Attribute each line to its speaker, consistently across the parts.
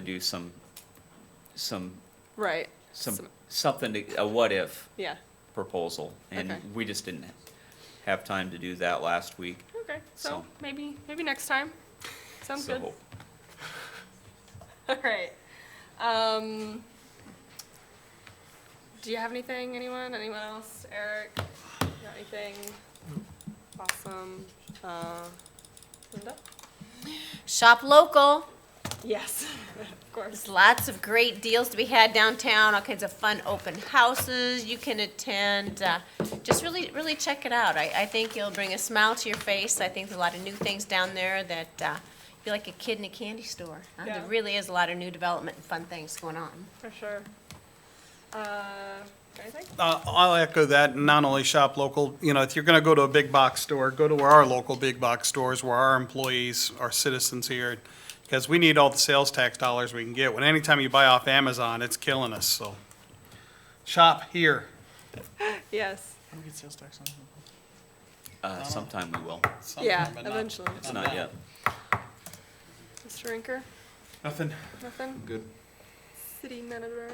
Speaker 1: do some, some,
Speaker 2: Right.
Speaker 1: some,
Speaker 2: Some-
Speaker 1: something, to- a what-if
Speaker 2: Yeah.
Speaker 1: proposal. And
Speaker 2: Okay.
Speaker 1: we just didn't have time to do that last week.
Speaker 2: Okay. So,
Speaker 1: So-
Speaker 2: maybe maybe next time. Sounds
Speaker 1: so-
Speaker 2: good. All right. Um, do you have anything? Anyone? Anyone else? Eric? You Got anything? Awesome. Uh, Linda?
Speaker 3: Shop local.
Speaker 2: Yes. of course.
Speaker 3: There's lots of great deals to be had downtown, all kinds of fun open houses you can attend. Uh, just really, really check it out. I, I think it'll bring a smile to your face. I think there's a lot of new things down there that uh, you feel like a kid in a candy store. huh?
Speaker 2: Yeah.
Speaker 3: There really is a lot of new development and fun things going on.
Speaker 2: For sure. Uh, anything?
Speaker 4: Uh, I'll echo that, and not only shop local, you know, if you're gonna go to a big box store, go to where our local big box stores, where our employees, our citizens here, because we need all the sales tax dollars we can get. When anytime you buy off Amazon, it's killing us, so shop here.
Speaker 2: Yes.
Speaker 4: Don't get sales tax on
Speaker 1: Uh, sometime we will.
Speaker 2: Yeah, eventually.
Speaker 1: It's not yet.
Speaker 2: Mr. Rinker?
Speaker 4: Nothing.
Speaker 2: Nothing?
Speaker 5: Good.
Speaker 2: City manager?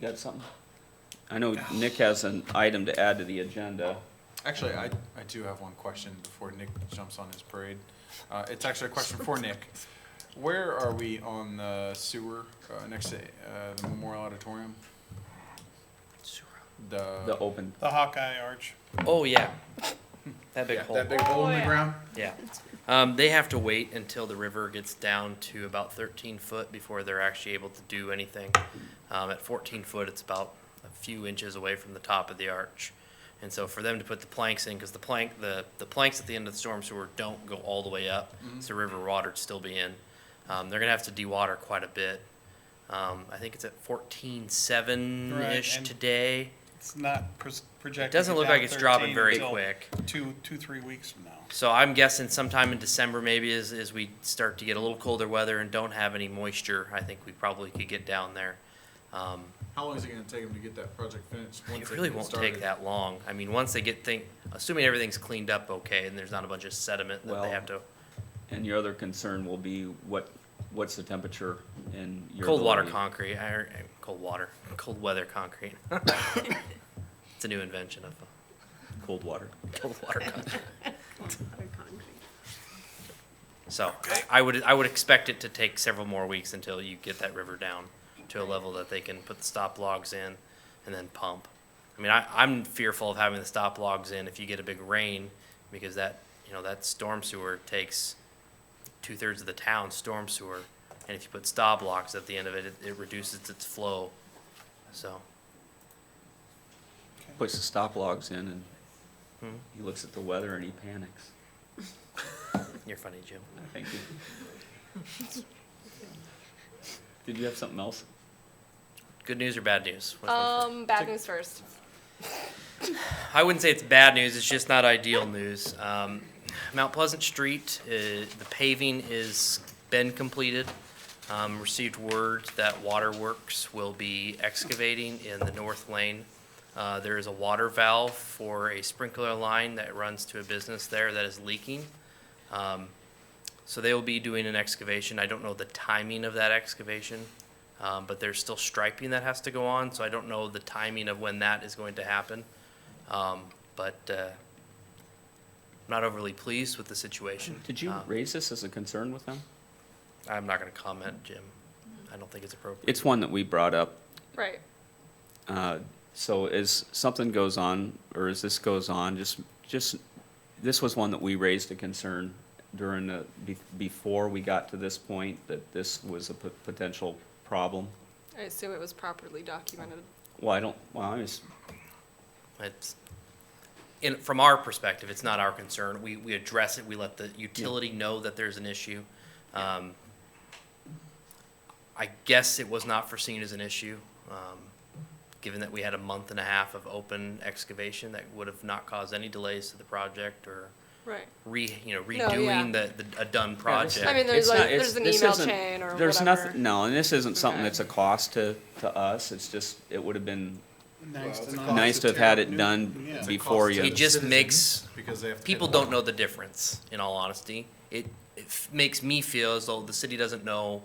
Speaker 1: Got something? I know Nick has an item to add to the agenda.
Speaker 5: Actually, I, I do have one question before Nick jumps on his parade. Uh, it's actually a question for Nick. Where are we on the sewer, uh, next to, uh, the Memorial Auditorium?
Speaker 1: The
Speaker 5: The,
Speaker 1: open,
Speaker 4: The Hawkeye Arch.
Speaker 6: Oh yeah, that big
Speaker 5: yeah,
Speaker 6: hole.
Speaker 5: that big hole in the ground?
Speaker 6: yeah, um, they have to wait until the river gets down to about 13 foot before they're actually able to do anything. Um, at 14 foot, it's about a few inches away from the top of the arch, and so for them to put the planks in, because the plank, the the planks at the end of the storm sewer don't go all the way up, so river water'd still be in. Um, they're gonna have to dewater quite a bit. Um, I think it's at 14.7 ish
Speaker 4: Right, and-
Speaker 6: today.
Speaker 4: It's not pres- projected.
Speaker 6: It doesn't
Speaker 4: to
Speaker 6: look
Speaker 4: down
Speaker 6: like it's dropping
Speaker 4: 13
Speaker 6: very
Speaker 4: until
Speaker 6: quick.
Speaker 4: Two, two, three weeks from now.
Speaker 6: So I'm guessing sometime in December, maybe as, as we start to get a little colder weather and don't have any moisture, I think we probably could get down there. Um,
Speaker 5: How long is it gonna take them to get that project finished? once
Speaker 6: it
Speaker 5: they
Speaker 6: really
Speaker 5: get
Speaker 6: won't
Speaker 5: started?
Speaker 6: take that long. I mean, once they get thing, assuming everything's cleaned up okay and there's not a bunch of sediment that
Speaker 1: Well,
Speaker 6: they have to,
Speaker 1: and your other concern will be what, what's the temperature in your.
Speaker 6: cold water
Speaker 1: ability-
Speaker 6: concrete, I, I- cold water, cold weather concrete. It's a new invention of uh,
Speaker 1: Cold water.
Speaker 6: cold water concrete. So I would, I would expect it to take several more weeks until you get that river down to a level that they can put the stop logs in and then pump. I mean, I, I'm fearful of having the stop logs in if you get a big rain because that, you know, that storm sewer takes two thirds of the town's storm sewer. And if you put stop logs at the end of it, it, it reduces its flow. So,
Speaker 1: Puts the stop logs in and
Speaker 6: Hmm.
Speaker 1: he looks at the weather and he panics.
Speaker 6: you're funny, Jim.
Speaker 1: Thank you. Did you have something else?
Speaker 6: Good news or bad news? Which one first?
Speaker 2: Um, bad news first.
Speaker 6: I wouldn't say it's bad news. It's just not ideal news. Um, Mount Pleasant Street, uh, the paving is been completed. Um, received word that Waterworks will be excavating in the north lane. Uh, there is a water valve for a sprinkler line that runs to a business there that is leaking. Um, so they will be doing an excavation. I don't know the timing of that excavation, um, but there's still striping that has to go on. So I don't know the timing of when that is going to happen. Um, but uh, I'm not overly pleased with the situation.
Speaker 1: Did you
Speaker 6: Uh,
Speaker 1: raise this as a concern with them?
Speaker 6: I'm not going to comment, Jim. I don't think it's appropriate.
Speaker 1: It's one that we brought up.
Speaker 2: Right.
Speaker 1: Uh, So as something goes on, or as this goes on, just, just, this was one that we raised a concern during the, be- before we got to this point, that this was a po- potential problem.
Speaker 2: I assume it was properly documented.
Speaker 1: Well, I don't, well, I was,
Speaker 6: It's, in, from our perspective, it's not our concern. We, we address it, we let the utility know that there's an issue. Um, I guess it was not foreseen as an issue, um, given that we had a month and a half of open excavation that would have not caused any delays to the project or
Speaker 2: Right.
Speaker 6: re, you know,
Speaker 2: yeah.
Speaker 6: redoing the, the, a done project.
Speaker 2: I mean, there's
Speaker 1: It's
Speaker 2: like,
Speaker 1: not- it's-
Speaker 2: there's an
Speaker 1: this
Speaker 2: email
Speaker 1: isn't-
Speaker 2: chain or
Speaker 1: There's
Speaker 2: whatever.
Speaker 1: nothing, no, and this isn't something
Speaker 2: Okay.
Speaker 1: that's a cost to, to us, it's just, it would have been
Speaker 4: Nice
Speaker 5: it's
Speaker 4: to
Speaker 5: a
Speaker 4: know.
Speaker 5: cost
Speaker 1: nice to have had it done
Speaker 4: Yeah.
Speaker 1: before you.
Speaker 6: It just makes,
Speaker 5: Because they have to. pay
Speaker 6: people
Speaker 5: the
Speaker 6: don't
Speaker 5: water.
Speaker 6: know the difference, in all honesty. It, it f- makes me feel as though the city doesn't know